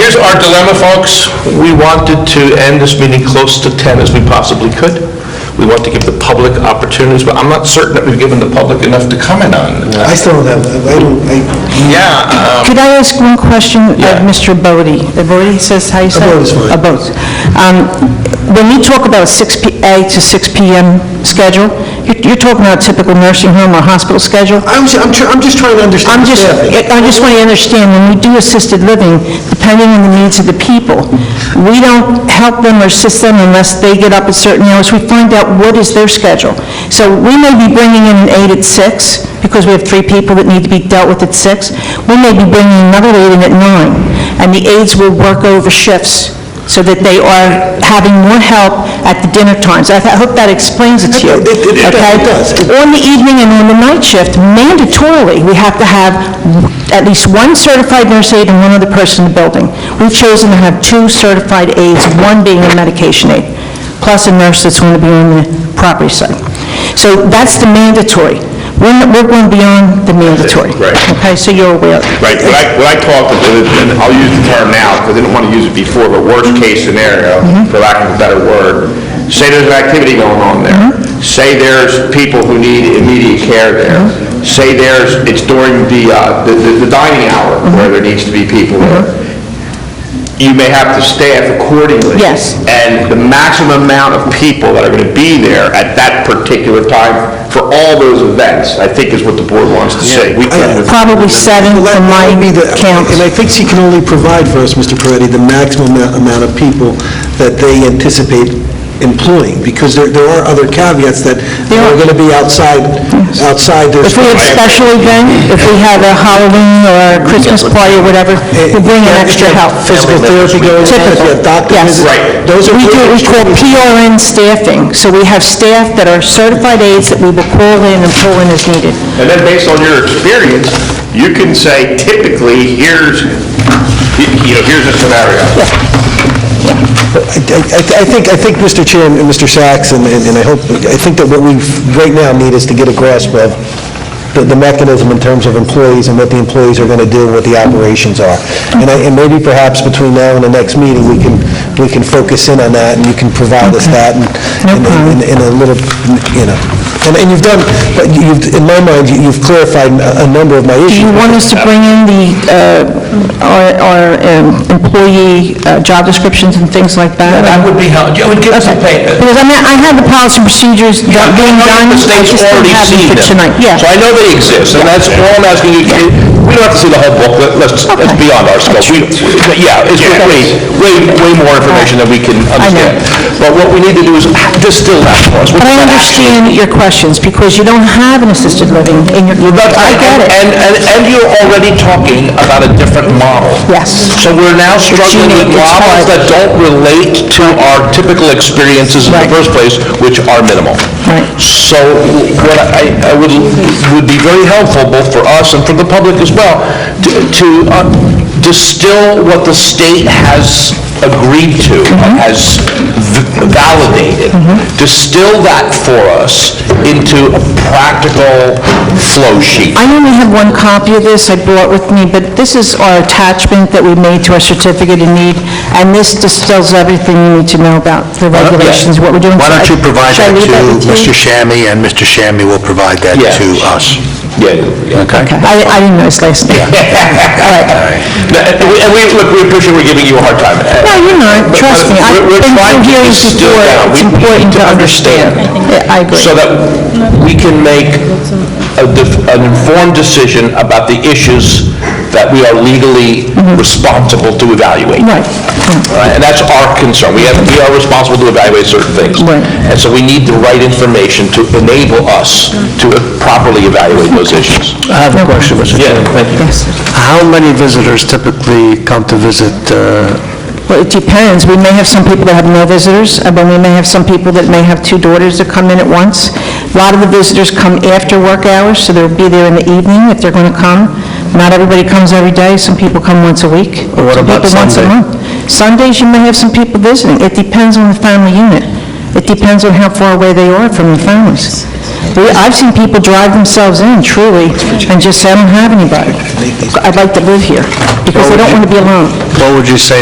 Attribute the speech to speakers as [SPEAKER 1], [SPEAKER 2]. [SPEAKER 1] our dilemma, folks?
[SPEAKER 2] We wanted to end this meeting close to 10 as we possibly could. We want to give the public opportunities, but I'm not certain that we've given the public enough to comment on.
[SPEAKER 3] I still don't have, I don't, I,
[SPEAKER 2] Yeah, uh,
[SPEAKER 4] Could I ask one question
[SPEAKER 2] Yeah.
[SPEAKER 4] of Mr. Bodie? Uh, Bodie says, how you say?
[SPEAKER 3] Abode is fine.
[SPEAKER 4] Abode. Um, When you talk about a 6 P a to 6 PM schedule, you're you're talking about typical nursing home or hospital schedule?
[SPEAKER 3] I'm, s- I'm tr- I'm just trying to
[SPEAKER 4] I'm
[SPEAKER 3] understand
[SPEAKER 4] just,
[SPEAKER 3] staffing.
[SPEAKER 4] I just want to understand, when we do assisted living, depending on the needs of the people, we don't help them or assist them unless they get up at certain hours. We find out what is their schedule. So we may be bringing in an eight at six, because we have three people that need to be dealt with at six. We may be bringing another eight in at nine, and the aides will work over shifts so that they are having more help at the dinner times. I I hope that explains it to you.
[SPEAKER 3] It- it- it
[SPEAKER 4] okay?
[SPEAKER 3] does.
[SPEAKER 4] on the evening and on the night shift, mandatorily, we have to have at least one certified nurse aide and one other person in the building. We've chosen to have two certified aides, one being a medication aide, plus a nurse that's going to be on the property side. So that's the mandatory. We're not- we're going beyond the mandatory.
[SPEAKER 2] Right.
[SPEAKER 4] Okay, so you're aware.
[SPEAKER 2] right, when I, when I talked, and I'll use the term now, because I didn't want to use it before, but worst-case scenario,
[SPEAKER 4] Mm-hmm.
[SPEAKER 2] for lack of a better word, say there's an activity going on there,
[SPEAKER 4] Mm-hmm.
[SPEAKER 2] say there's people who need immediate care there,
[SPEAKER 4] Mm-hmm.
[SPEAKER 2] say there's, it's during the, uh, the- the the dining hour
[SPEAKER 4] Mm-hmm.
[SPEAKER 2] where there needs to be people there, you may have to staff accordingly.
[SPEAKER 4] Yes.
[SPEAKER 2] And the maximum amount of people that are going to be there at that particular time for all those events, I think is what the board wants to see. We can't-
[SPEAKER 4] Probably seven
[SPEAKER 3] Well, that-
[SPEAKER 4] from
[SPEAKER 3] that
[SPEAKER 4] my
[SPEAKER 3] would be the-
[SPEAKER 4] count.
[SPEAKER 3] And I think she can only provide for us, Mr. Peretti, the maximum amou- amount of people that they anticipate employing, because there, there are other caveats that are going to be outside, outside this.
[SPEAKER 4] If we have special event, if we have a Halloween or a Christmas party or whatever, we bring in extra help.
[SPEAKER 3] Physical therapy going on, if you have doctor
[SPEAKER 4] Yes.
[SPEAKER 3] visits.
[SPEAKER 2] Right.
[SPEAKER 3] Those are.
[SPEAKER 4] We do, we call PRN staffing, so we have staff that are certified aides that we will call in and pull in as needed.
[SPEAKER 2] And then based on your experience, you can say typically, here's, you know, here's a scenario.
[SPEAKER 3] I- I I think, I think, Mr. Chair and Mr. Sachs, and and I hope, I think that what we right now need is to get a grasp of the- the mechanism in terms of employees and what the employees are going to do, and what the operations are. And I- and maybe perhaps between now and the next meeting, we can, we can focus in on that, and you can provide us that and- and- and- in a little, you know. And and you've done, but you've, in my mind, you- you've clarified a a number of my issues.
[SPEAKER 4] Do you want us to bring in the, uh, our our, um, employee uh, job descriptions and things like that?
[SPEAKER 1] That would be, hel- it would give us a paper.
[SPEAKER 4] Because I mean, I have the policy and
[SPEAKER 1] I
[SPEAKER 4] procedures that being
[SPEAKER 1] know
[SPEAKER 4] done,
[SPEAKER 1] that the
[SPEAKER 4] I
[SPEAKER 1] state's
[SPEAKER 4] just don't
[SPEAKER 1] already
[SPEAKER 4] have
[SPEAKER 1] seen
[SPEAKER 4] them for
[SPEAKER 1] them.
[SPEAKER 4] tonight. Yeah.
[SPEAKER 1] So I know they exist, and that's all I'm asking you, to- we don't have to see the whole booklet, let's, that's
[SPEAKER 4] Okay.
[SPEAKER 1] beyond our scope. We- we- Yeah, it's way, way, way more information than we can understand. But what we need to do is distill that for us.
[SPEAKER 4] But I understand your questions, because you don't have an assisted living in your, I get it.
[SPEAKER 1] And, and, and you're already talking about a different model.
[SPEAKER 4] Yes.
[SPEAKER 1] So we're now struggling with
[SPEAKER 4] unique, it's
[SPEAKER 1] models
[SPEAKER 4] hard.
[SPEAKER 1] that don't relate to our typical experiences in the
[SPEAKER 4] Right.
[SPEAKER 1] first place, which are minimal.
[SPEAKER 4] Right.
[SPEAKER 1] So what I, I would, would be very helpful, both for us and for the public as well, to to, uh, distill what the state has agreed to,
[SPEAKER 4] Mm-hmm.
[SPEAKER 1] has v- validated, distill that for us into a practical flow sheet.
[SPEAKER 4] I only have one copy of this I brought with me, but this is our attachment that we made to our certificate of need, and this distills everything you need to know about the
[SPEAKER 1] Uh,
[SPEAKER 4] regulations, what we're doing.
[SPEAKER 5] Why don't you provide
[SPEAKER 4] Should I
[SPEAKER 5] that
[SPEAKER 4] leave
[SPEAKER 5] to
[SPEAKER 4] with you?
[SPEAKER 5] Mr. Shammy, and Mr. Shammy will provide that
[SPEAKER 1] Yeah.
[SPEAKER 5] to us?
[SPEAKER 1] Yeah. Okay.
[SPEAKER 4] Okay, I I didn't know his last name.
[SPEAKER 1] And we- and we, look, we appreciate we're giving you a hard time.
[SPEAKER 4] No, you're not, trust me, I've
[SPEAKER 1] We're- we're
[SPEAKER 4] been
[SPEAKER 1] trying to
[SPEAKER 4] through hearings
[SPEAKER 1] distill
[SPEAKER 4] before,
[SPEAKER 1] down.
[SPEAKER 4] it's
[SPEAKER 1] We- we need
[SPEAKER 4] important
[SPEAKER 1] to
[SPEAKER 4] to understand. Yeah, I agree.
[SPEAKER 1] so that we can make a def- an informed decision about the issues that we are legally responsible to evaluate.
[SPEAKER 4] Mm-hmm. Right,
[SPEAKER 1] All right, And that's our concern. We have, we are responsible to evaluate certain things.
[SPEAKER 4] Right.
[SPEAKER 1] And so we need the right information to enable us to properly evaluate those issues.
[SPEAKER 6] I have a question, Mr.
[SPEAKER 1] Yeah,
[SPEAKER 6] Chairman.
[SPEAKER 1] thank you.
[SPEAKER 4] yes.
[SPEAKER 6] How many visitors typically come to visit? uh,
[SPEAKER 4] Well, it depends. We may have some people that have no visitors, and then we may have some people that may have two daughters that come in at once. A lot of the visitors come after work hours, so they'll be there in the evening if they're going to come. Not everybody comes every day. Some people come once a week.
[SPEAKER 6] Well, what
[SPEAKER 4] Some
[SPEAKER 6] about
[SPEAKER 4] people once a
[SPEAKER 6] Sunday?
[SPEAKER 4] month. Sundays, you may have some people visiting. It depends on the family unit. It depends on how far away they are from their families. We- I've seen people drive themselves in, truly, and just say, "I don't have anybody. I'd like to live here," because they don't want to be alone.
[SPEAKER 6] What would you say